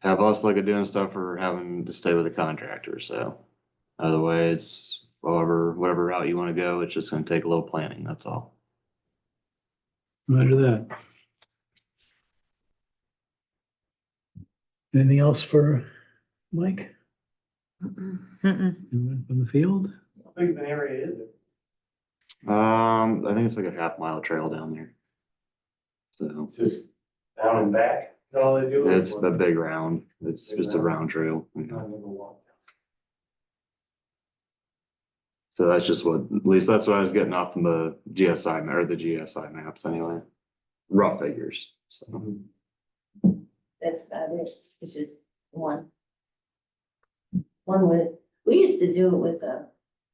have us look at doing stuff or having to stay with a contractor, so. Either way, it's however, whatever route you wanna go, it's just gonna take a little planning, that's all. Roger that. Anything else for Mike Mm-mm. Anyone from the field? big of an area is it? Um, I think it's like a half mile trail down there. So, It's just down and back, is all they do. it's a big round, it's just a round trail, you know. So that's just what, at least that's what I was getting off from the GSI ma- or the GSI maps anyway. Rough figures, so. That's about it. It's just one. One with, we used to do it with a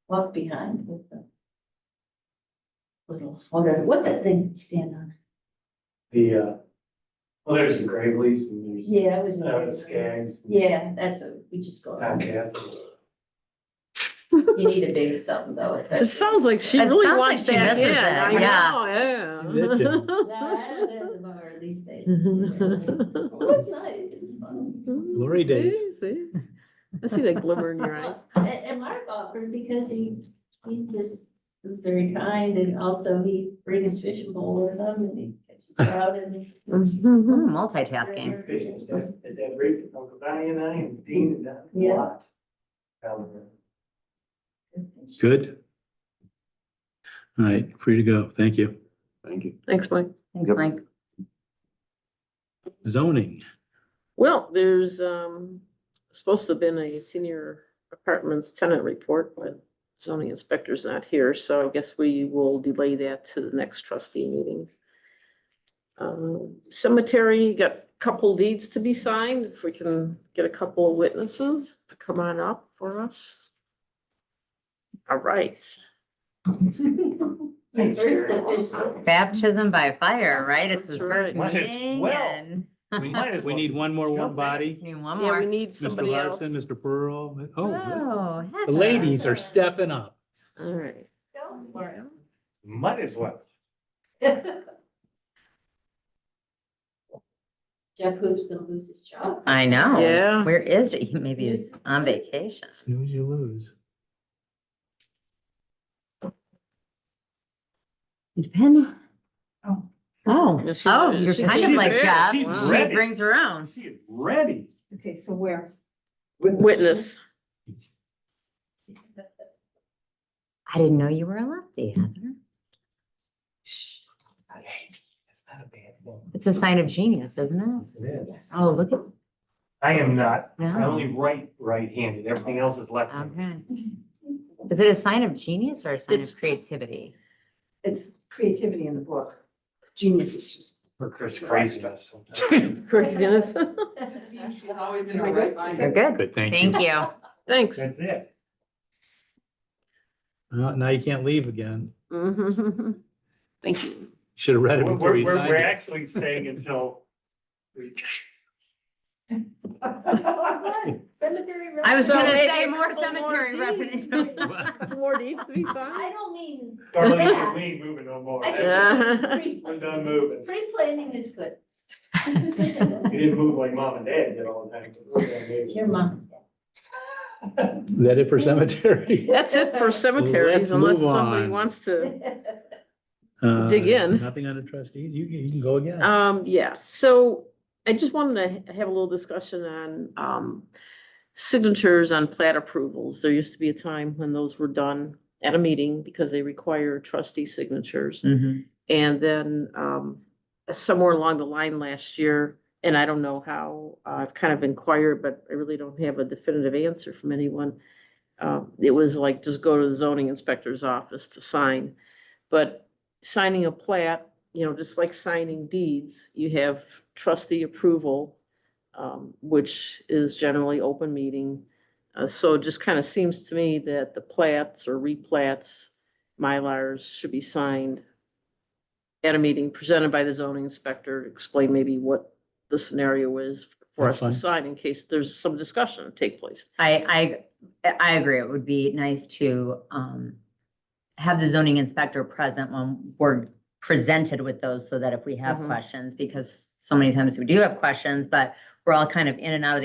walk behind with the little, whatever, what's that thing you stand on? The, uh, well, there's the Gravely's and there's, Yeah, it was. uh, the Skags, Yeah, that's, a- we just go, Town Castle. you need a big something though, especially. It sounds like she It really sounds wants like she that in. misses that, I know, She did, yeah. No, I don't have the bar these days. Well, It's nice, it's fun. Glory See, days. see? I see that glimmer in your eyes. And, and Mark offered because he, he just is very kind and also he brings his fishing pole with him and he catches trout and. Ooh, Multitasking. Fishing stuff at that rate, Uncle Donnie and I and Dean and that. Yeah. Good. All right, free to go. Thank you. Thank you. Thanks, Mike. Thanks, Yep. Mike. Zoning. Well, there's, um, supposed to have been a senior apartments tenant report, but zoning inspector's not here, so I guess we will delay that to the next trustee meeting. Um, cemetery, got a couple deeds to be signed, if we can get a couple of witnesses to come on up for us. All right, My first official. Baptism by fire, right? It's That's his right. first Might as meeting well. and We need one more warm body. need one yeah, we more. need Mr. somebody else. Ah. Larson, Mr. Pearl. Oh, Oh, the Heather. ladies are stepping up. All right, Don't worry. Might as well. Jeff Hoops gonna lose his job. I know. Yeah. Where is he? Maybe he's Snooze. on vacation. Snooze, you lose. You depend. Oh. Oh, Yeah, she- oh, you're she- kind of she's like there. Jeff. She's She ready. brings her own. She is ready. Okay, so where? witness, I didn't know you were a lefty, Heather. Hey, That's not a bad one. It's a sign of genius, isn't it? It is. Yes. Oh, look at, I am not, I no. only write right-handed, everything else is left-handed. Okay. Is it a sign of genius or a sign It's- of creativity? It's creativity in the book. Genius is just. For Chris craziness. craziness, She's always been a right They're good. Good, thank you. Thank you. thanks. That's it. Uh, Now you can't leave again. Mhm. Thank you. Should have read We're, it before we're, you we're signed actually staying until. we- Cemetery. I was So gonna maybe say a more couple more cemetery days. reference. it. More needs to be signed? I don't mean, Darlene, we ain't moving no more. I That's just. it. Yeah. I'm done moving. Pre-planning is good. You didn't move like mom and dad did all the time. We're gonna move. Your mom. Is that it for cemetery? That's it for cemeteries Let's unless move somebody on. wants to, Uh, Dig in. Nothing on the trustees. You, you can go again. um, yeah, so I just wanted to ha- have a little discussion on, um, signatures on plat approvals. There used to be a time when those were done at a meeting because they require trustee signatures. Mm. Mhm. And then, um, somewhere along the line last year, and I don't know how, uh, I've kind of inquired, but I really don't have a definitive answer from anyone. Uh, it was like, just go to the zoning inspector's office to sign. But signing a plat, you know, just like signing deeds, you have trustee approval, um, which is generally open meeting. Uh, so it just kind of seems to me that the plats or replats, Mylars should be signed at a meeting presented by the zoning inspector, explain maybe what the scenario is for That's us to fine. sign in case there's some discussion to take place. I, I, I agree. It would be nice to, um, have the zoning inspector present when we're presented with those so that if we have Mhm. questions, because so many times we do have questions, but we're all kind of in and out of the